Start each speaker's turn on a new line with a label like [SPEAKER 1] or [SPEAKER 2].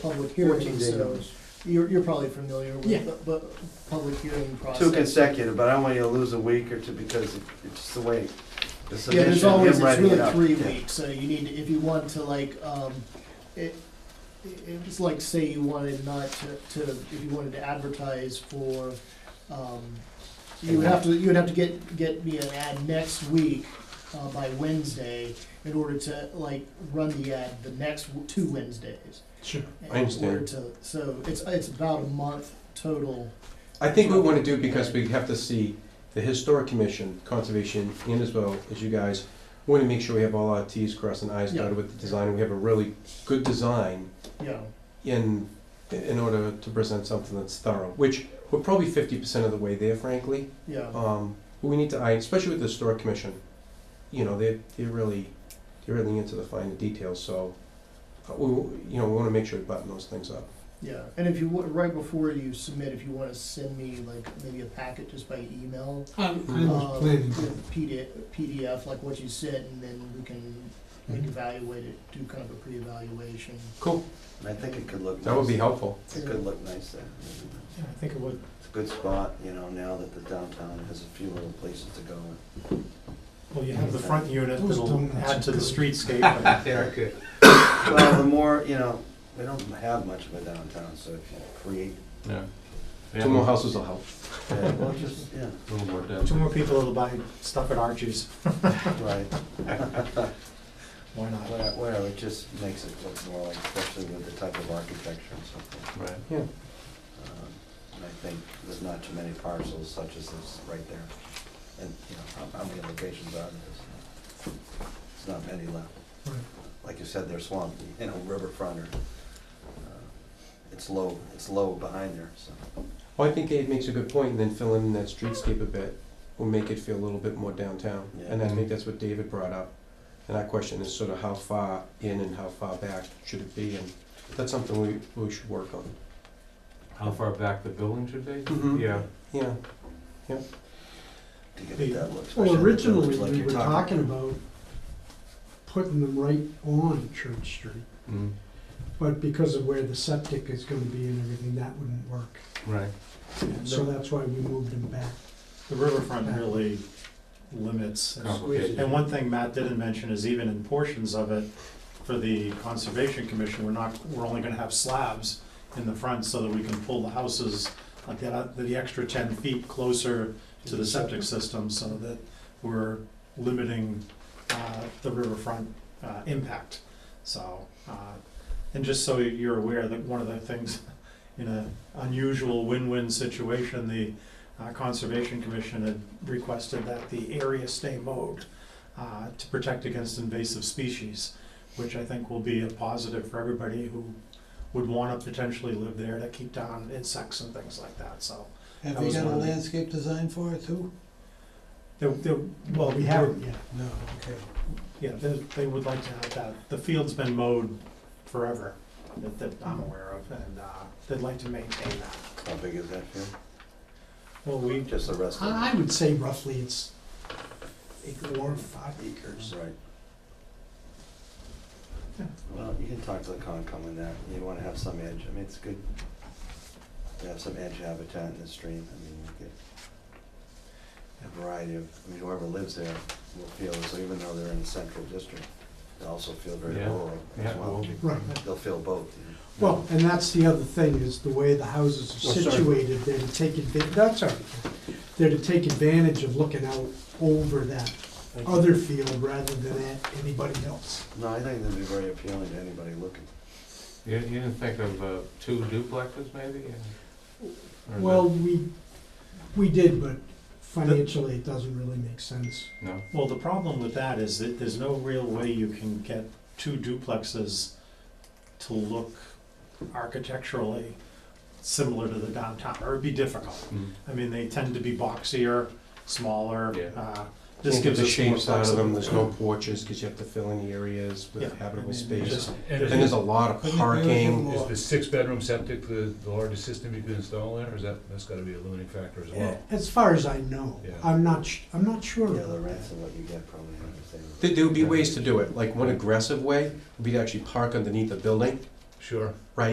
[SPEAKER 1] public hearing,
[SPEAKER 2] 14 day
[SPEAKER 1] so
[SPEAKER 2] notice.
[SPEAKER 1] you're, you're probably familiar
[SPEAKER 3] Yeah.
[SPEAKER 1] with the, bu- public hearing process.
[SPEAKER 2] Two consecutive, but I don't want you to lose a week or two because it- it's the way. the
[SPEAKER 1] Yeah, there's
[SPEAKER 2] submission,
[SPEAKER 1] always,
[SPEAKER 2] him
[SPEAKER 1] it's
[SPEAKER 2] writing it
[SPEAKER 1] really
[SPEAKER 2] up.
[SPEAKER 1] three
[SPEAKER 2] Yeah.
[SPEAKER 1] weeks, so you need, to if you want to like, um, it, it's like, say you wanted not to, to, if you wanted to advertise for, um, you would have to, you would have to get, get me an ad next week, uh, by Wednesday, in order to like, run the ad the next w- two Wednesdays.
[SPEAKER 3] Sure.
[SPEAKER 1] in
[SPEAKER 4] I understand.
[SPEAKER 1] order to- So it's, it's about a month total.
[SPEAKER 4] I think we want to do, because we have to see the Historic Commission, Conservation, and as well as you guys, we want to make sure we have all our Ts crossed and Is
[SPEAKER 1] Yeah.
[SPEAKER 4] dotted with the design, we have a really good design
[SPEAKER 1] Yeah,
[SPEAKER 4] in, in order to present something that's thorough, which we're probably fifty percent of the way there frankly.
[SPEAKER 1] yeah.
[SPEAKER 4] Um, but we need to, I, especially with the Historic Commission, you know, they're, they're really, they're really into the finer details, so uh, we, you know, we want to make sure we button those things up.
[SPEAKER 1] Yeah, and if you, wa- right before you submit, if you want to send me like maybe a packet just by email,
[SPEAKER 3] I'm, I
[SPEAKER 1] uh,
[SPEAKER 3] was planning,
[SPEAKER 1] with PD PDF, like what you sent, and then we can like
[SPEAKER 5] Mm-hmm.
[SPEAKER 1] evaluate it, do kind of a pre-evaluation.
[SPEAKER 4] Cool,
[SPEAKER 2] I think it could look nice.
[SPEAKER 4] that would be helpful.
[SPEAKER 2] It could look nice there. It's
[SPEAKER 3] yeah, I think it would,
[SPEAKER 2] a good spot, you know, now that the downtown has a few little places to go.
[SPEAKER 3] well, you have the front unit
[SPEAKER 5] Those
[SPEAKER 3] that'll
[SPEAKER 5] donuts
[SPEAKER 3] add
[SPEAKER 5] are
[SPEAKER 3] to the
[SPEAKER 5] good.
[SPEAKER 3] streetscape.
[SPEAKER 4] They are good.
[SPEAKER 2] Well, the more, you know, we don't have much of a downtown, so if you create,
[SPEAKER 6] Yeah.
[SPEAKER 4] Two more houses will help.
[SPEAKER 2] yeah, well, just, yeah,
[SPEAKER 6] A little more
[SPEAKER 3] and Two
[SPEAKER 6] depth.
[SPEAKER 3] more people that'll buy stuff at Archie's,
[SPEAKER 2] right.
[SPEAKER 3] why not?
[SPEAKER 2] Where- Where it just makes it look more like, especially with the type of architecture and so forth.
[SPEAKER 6] Right.
[SPEAKER 4] Yeah.
[SPEAKER 2] Um, And I think there's not too many parcels such as this right there. And, you know, how- how many locations are there? It's not- It's not many left.
[SPEAKER 3] Right.
[SPEAKER 2] Like you said, they're swamped, you know, riverfront or, uh, it's low, it's low behind there, so.
[SPEAKER 4] Well, Oh, I think Dave makes a good point, and then fill in that streetscape a bit will make it feel a little bit more downtown. And I think that's what David brought up. And our question is sort of how far in and how far back should it be, and that's something we, we should work on.
[SPEAKER 6] How far back the building should be?
[SPEAKER 5] Mm-hmm.
[SPEAKER 4] Mhm.
[SPEAKER 6] Yeah.
[SPEAKER 4] Yeah,
[SPEAKER 2] To get it that look. especially
[SPEAKER 5] Well,
[SPEAKER 2] if it
[SPEAKER 5] originally,
[SPEAKER 2] looks like
[SPEAKER 5] we
[SPEAKER 2] you're
[SPEAKER 5] were talking about putting them right on Church Street,
[SPEAKER 6] Mm,
[SPEAKER 5] but because of where the septic is gonna be and everything, that wouldn't work.
[SPEAKER 6] Right.
[SPEAKER 5] So that's why we moved them back.
[SPEAKER 3] The riverfront really limits.
[SPEAKER 6] Complicated.
[SPEAKER 3] And one thing Matt didn't mention is even in portions of it, for the Conservation Commission, we're not, we're only gonna have slabs in the front so that we can pull the houses, like that, the extra ten feet closer to the septic system so that we're limiting, uh, the riverfront, uh, impact. So, uh, and just so you're aware that one of the things, in an unusual win-win situation, the uh, Conservation Commission had requested that the area stay mowed uh, to protect against invasive species, which I think will be a positive for everybody who would want to potentially live there to keep down insects and things like that, so.
[SPEAKER 5] Have
[SPEAKER 3] That they was got a one of the-
[SPEAKER 5] landscape design for it too?
[SPEAKER 3] there- there- Well, we haven't yet.
[SPEAKER 5] No, okay.
[SPEAKER 3] Yeah, they, they would like to have that. The field's been mowed forever, that, that I'm aware of, and uh, they'd like to maintain that.
[SPEAKER 2] tough. How big is that field?
[SPEAKER 3] Well, we,
[SPEAKER 2] Just the rest of
[SPEAKER 5] I
[SPEAKER 2] it.
[SPEAKER 5] I would say roughly it's acre or five acres.
[SPEAKER 2] Right.
[SPEAKER 3] Yeah.
[SPEAKER 2] Well, you can talk to the Concom on that, you wanna have some edge, I mean, it's good to have some edge habitat in the stream, I mean, you get a variety of, I mean, whoever lives there will feel, so even though they're in the central district, they also feel very
[SPEAKER 6] Yeah.
[SPEAKER 2] rural as
[SPEAKER 6] Yeah,
[SPEAKER 2] well.
[SPEAKER 6] well,
[SPEAKER 5] Right.
[SPEAKER 2] They'll feel both, you know.
[SPEAKER 5] Well, and that's the other thing, is the way the houses
[SPEAKER 4] Oh,
[SPEAKER 5] are
[SPEAKER 4] sorry.
[SPEAKER 5] situated, they're to take, adva- that's all right. They're to take advantage of looking out over that other field rather than at anybody else.
[SPEAKER 2] No, I think that'd be very appealing to anybody looking.
[SPEAKER 6] You, you didn't think of uh, two duplexes maybe? Or is
[SPEAKER 5] Well, we, we did, but financially, it doesn't really make sense.
[SPEAKER 6] it- No?
[SPEAKER 3] well, the problem with that is that there's no real way you can get two duplexes to look architecturally similar to the downtown, or it'd be difficult.
[SPEAKER 6] Mm.
[SPEAKER 3] I mean, they tend to be boxier, smaller.
[SPEAKER 6] Yeah.
[SPEAKER 3] uh, This
[SPEAKER 4] just get
[SPEAKER 3] gives
[SPEAKER 4] the
[SPEAKER 3] us more
[SPEAKER 4] shapes out of them, there's no
[SPEAKER 3] flexibility.
[SPEAKER 4] porches, because you have to fill in the areas
[SPEAKER 3] Yeah,
[SPEAKER 4] with habitable
[SPEAKER 3] It's
[SPEAKER 4] space.
[SPEAKER 3] just-
[SPEAKER 4] And there's a lot of parking,
[SPEAKER 6] Is the six-bedroom septic the, the largest system you can install there, or is that, that's gotta be a limiting factor as
[SPEAKER 3] Eh,
[SPEAKER 6] well?
[SPEAKER 5] As far as I know,
[SPEAKER 6] Yeah.
[SPEAKER 5] I'm not, sh- I'm not sure
[SPEAKER 2] Yeah, the
[SPEAKER 5] about
[SPEAKER 2] rents
[SPEAKER 5] that.
[SPEAKER 2] and what you get probably, I understand.
[SPEAKER 4] There, there would be ways to do it, like one aggressive way would be to actually park underneath the building,
[SPEAKER 6] Sure.
[SPEAKER 4] right?